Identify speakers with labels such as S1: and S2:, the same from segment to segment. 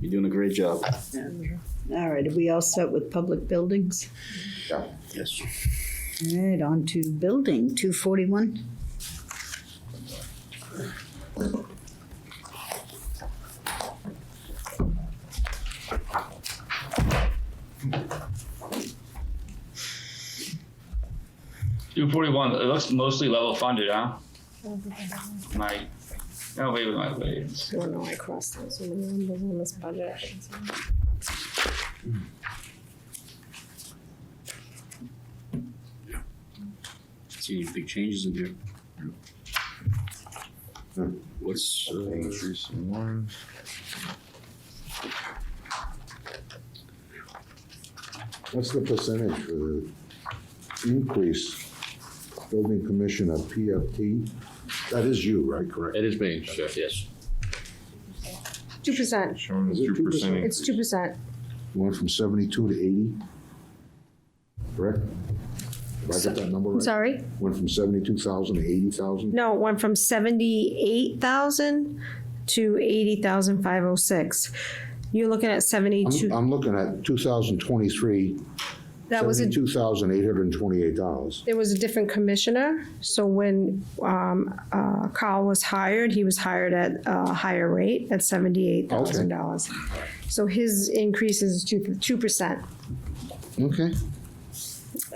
S1: You're doing a great job.
S2: All right, are we all set with public buildings?
S1: Yes.
S2: All right, on to building, two forty-one.
S3: Two forty-one, it looks mostly level funded, huh? My, no, wait, wait, wait, wait.
S4: I don't know, I crossed out so many numbers on this budget.
S1: See any big changes in here?
S5: Hmm.
S1: What's, uh,
S6: Increase in one. What's the percentage for the increase building commissioner PFT? That is you, right, correct?
S5: It is being shift, yes.
S4: Two percent,
S6: Showing
S1: Is
S6: the
S1: it
S6: two
S1: 2%?
S6: percent.
S4: it's two percent,
S6: Went from seventy-two to eighty? Correct? Did I get that number
S4: I'm
S6: right?
S4: sorry,
S6: Went from seventy-two thousand to eighty thousand?
S4: no, it went from seventy-eight thousand to eighty thousand five oh six. You're looking at
S6: I'm,
S4: seventy-two,
S6: I'm looking at two thousand twenty-three,
S4: that was a,
S6: seventy-two thousand eight hundred and twenty-eight dollars.
S4: there was a different commissioner, so when, um, uh, Carl was hired, he was hired at a higher rate, at seventy-eight thousand dollars. So his increase is two, two percent,
S6: Okay.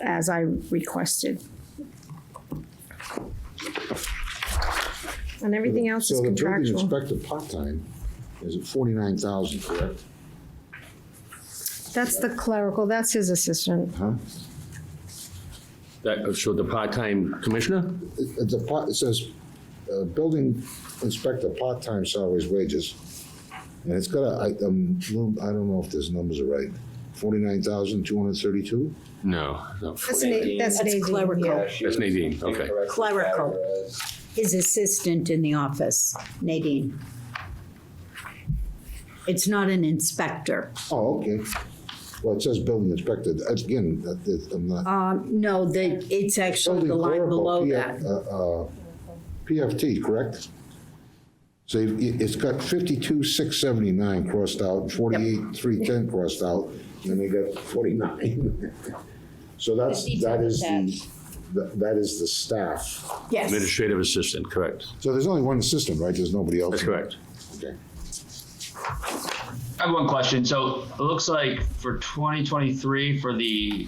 S4: as I requested. And everything else is
S6: So the building
S4: contractual.
S6: inspector part-time is at forty-nine thousand, correct?
S4: That's the clerical, that's his assistant.
S6: Huh?
S5: That, so the part-time commissioner?
S6: It, it's a part- it says, uh, building inspector, part-time salaries, wages. And it's got a, I, um, little- I don't know if those numbers are right, forty-nine thousand, two hundred and thirty-two?
S5: No, no,
S4: That's an, that's an
S2: That's
S4: AD,
S2: clerical.
S4: yeah.
S5: that's Nadine, okay.
S2: Clerical. His assistant in the office, Nadine. It's not an inspector.
S6: Oh, okay. Well, it says building inspector, that's, again, that, that, I'm not.
S2: Um, no, the, it's actually the
S6: Building
S2: line
S6: clerical,
S2: below
S6: P-
S2: that.
S6: uh, uh, PFT, correct? So you- it- it's got fifty-two, six seventy-nine crossed out, forty-eight, three ten crossed out, and they got forty-nine. So that's, that is the, that- that is the staff.
S2: Yes,
S5: Administrative assistant, correct.
S6: So there's only one assistant, right? There's nobody else?
S5: That's correct.
S6: Okay.
S3: I have one question, so it looks like for twenty twenty-three for the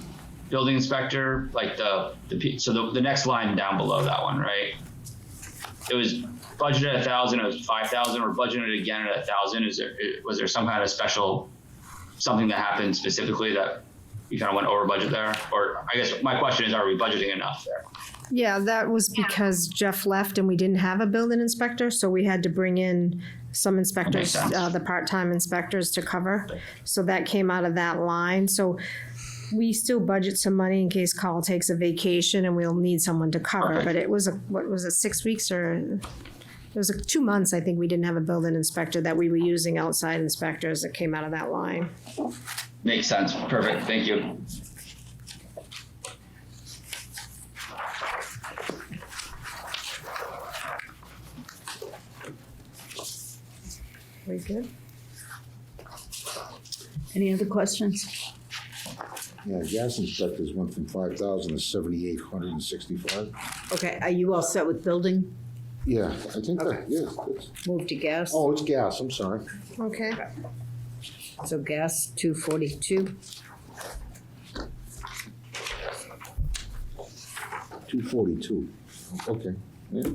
S3: building inspector, like the, the, P- so the, the next line down below that one, right? It was budgeted a thousand, it was five thousand, we're budgeted again at a thousand, is there, i- was there some kind of special, something that happened specifically that we kind of went over budget there? Or I guess my question is, are we budgeting enough there?
S4: Yeah, that was because Jeff left and we didn't have a building inspector, so we had to bring in some inspectors,
S3: sense.
S4: uh, the part-time inspectors to cover. So that came out of that line, so we still budget some money in case Carl takes a vacation and we'll need someone to cover,
S3: Okay.
S4: but it was, a what was it, six weeks or? It was like two months, I think, we didn't have a building inspector, that we were using outside inspectors that came out of that line.
S3: Makes sense, perfect, thank you.
S4: We good?
S2: any other questions?
S6: Yeah, gas inspectors went from five thousand to seventy-eight hundred and sixty-five.
S2: Okay, are you all set with building?
S6: Yeah, I think that, yeah. it's-
S2: Move to gas,
S6: Oh, it's gas, I'm sorry.
S4: Okay.
S2: so gas, two forty-two.
S6: Two forty-two, okay, yeah.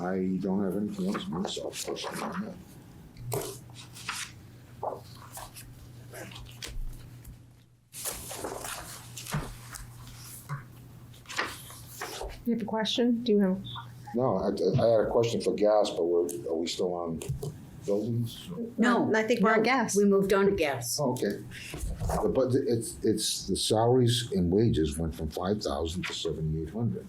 S6: I don't have anything else myself personally on that.
S4: You have a question? Do you have?
S6: No, I, I had a question for gas, but we're, are we still on buildings?
S2: No.
S4: I think we're on gas.
S2: We moved on to gas.
S6: Oh, okay. The But it's, it's, the salaries and wages went from five thousand to seventy-eight hundred.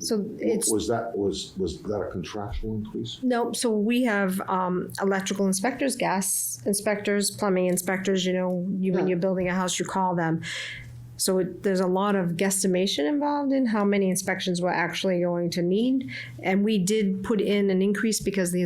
S4: So it's
S6: Was that, was, was that a contractual increase?
S4: No, so we have um, electrical inspectors, gas inspectors, plumbing inspectors, you know, you, when you're building a house, you call them. So it, there's a lot of guesstimation involved in how many inspections we're actually going to need. And we did put in an increase because the